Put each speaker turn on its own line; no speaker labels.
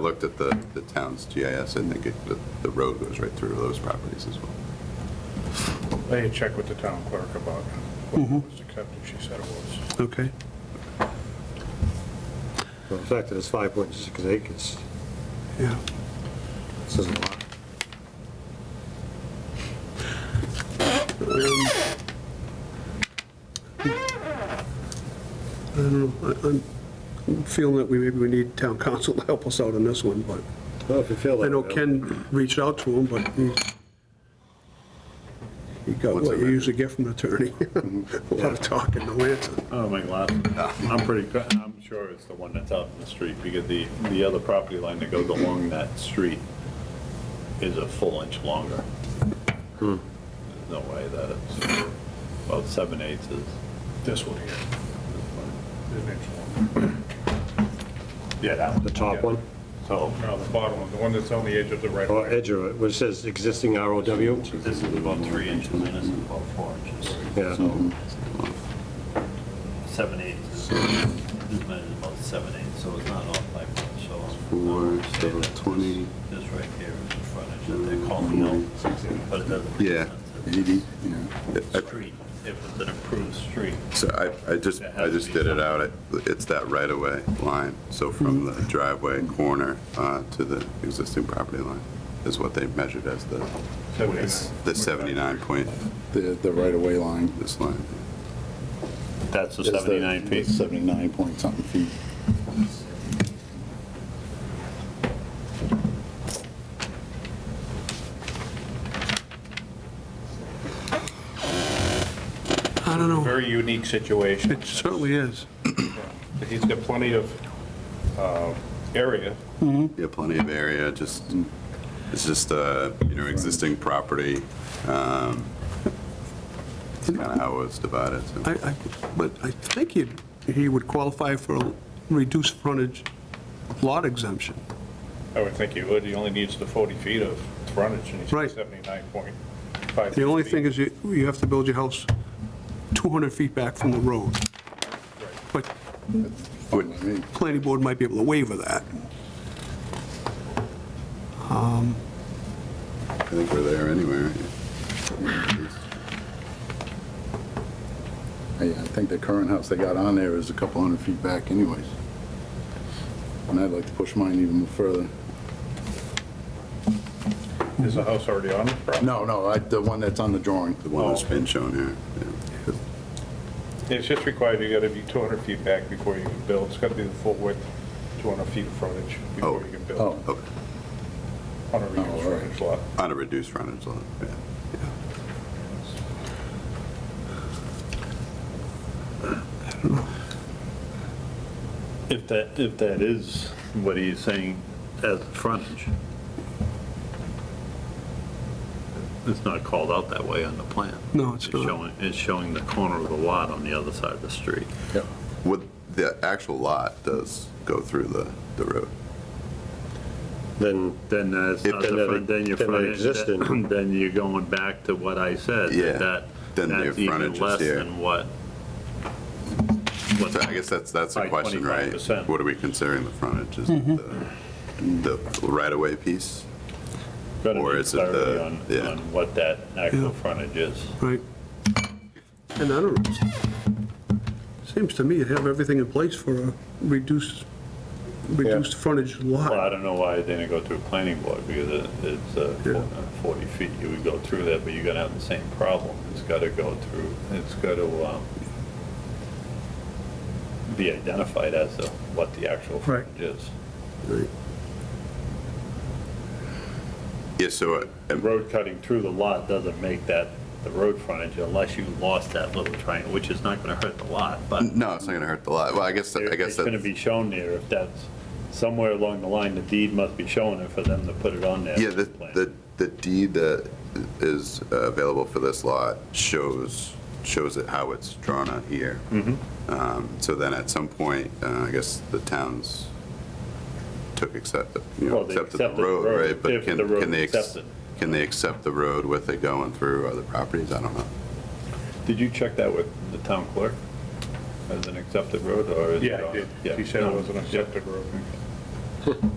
looked at the, the town's GIS, I think it- the, the road goes right through those properties as well.
I had checked with the town clerk about
Mm-hmm.
whether it was accepted, she said it was.
Okay.
So the fact that it's 5.6 acres
Yeah.
says a lot.
I don't know. I- I'm feeling that we, maybe we need town council to help us out on this one, but
Well, if you feel that.
I know
way.
Ken reached out to him, but he, he got what you usually get from an attorney. A lot of talking, no answer.
Oh, my God. I'm pretty, cr- I'm sure it's the one that's out in the street, because the, the other property line that goes along that street is a full inch longer.
Hmm.
There's no way that it's, about seven eighths is.
This one here, the next one.
Yeah, that one.
The top one,
So,
No, the bottom one, the one that's on the edge of the right of
or
way.
edge of it, which says existing ROW.
this is about three inches, and this is about four inches.
Yeah.
So, Seven eighths, is- this one is about seven eighths, so it's not off by much, so.
Four,
I would say
so
that this-
20.
This right here is the frontage that they're calling out, but it doesn't. make
Yeah.
sense. It's a
I-
Street, if it's an approved street.
So I, I just, I just did it out, It- it's that right-of-way line, so from
Mm-hmm.
the driveway corner uh, to the existing property line is what they measured as the, the 79 point,
The, the right-of-way line.
this line.
That's the
is the-
79 feet.
79 point something feet.
I don't know.
Very unique situation.
It certainly is.
He's got plenty of uh, area,
Yeah, plenty of area, just,
Mm.
it's just, uh, you know, existing property. um, It's kind of how it was divided. so.
I, I, but I think he, he would qualify for a reduced frontage lot exemption.
I would think he would, he only needs the 40 feet of frontage, and he's
Right.
at 79.5.
The only thing is you, you have to build your house 200 feet back from the road. But
Fine by me.
planning board might be able to waiver that.
I think we're there anyway.
I I think the current house they got on there is a couple hundred feet back anyways. And I'd like to push mine even further.
Is the house already on the property?
No, no, I- the one that's on the drawing.
The one that's been shown here. yeah.
It's just required, you gotta be 200 feet back before you can build, it's gotta be the full width, 200 feet of frontage before
Oh.
you can
Oh,
build
Okay.
on a reduced
Oh, all right.
frontage lot.
On a reduced frontage lot, yeah.
If that, if that is what he's saying as the frontage, it's not called out that way on the plan.
No, it's not.
showing, it's showing the corner of the lot on the other side of the street.
What, the actual lot does go through the, the road.
Then,
Then that's
If
not
then
the
that-
front, then your
then that
frontage,
existed.
then you're going back to what I said. that
Yeah,
that-
then your
That's even
frontage is
less
here.
than what.
So I guess that's, that's the
By
question, right?
25%.
What are we considering the frontage? Is it the, the right-of-way piece? or is it the-
Clarity on,
yeah.
on what that actual
Yeah.
frontage is.
Right. And I don't, seems to me you have everything in place for a reduced, reduced frontage
Well, I
lot.
don't know why it didn't go through planning board, because it- it's uh,
Yeah.
four- uh, 40 feet, you would go through that, but you're gonna have the same problem. It's gotta go through, it's gotta um, be identified as to what the actual
Right.
frontage is.
Right.
Yeah, so, uh,
The road cutting through the lot doesn't make that the road frontage unless you lost that little triangle, which is not gonna hurt the lot, but
no, it's not gonna hurt the lot. Well, I guess, Mm. I guess
it's gonna
that,
be shown there if that's, somewhere along the line, the deed must be showing it for them to put it on there.
yeah, the,
Plan.
the the deed that is uh, available for this lot shows, shows it how it's drawn out here.
Mm-hmm.
Um, So then at some point, uh, I guess the towns took accept, you know,
Well, they
accepted the
accepted the
road,
road,
right? But
if
can
the road
can they ex-
accepted.
Can they accept the road with it going through other properties? I don't know.
Did you check that with the town clerk as an accepted road or? is it
Yeah,
on-
I did,
yeah.
he said it
No.
was an accepted road.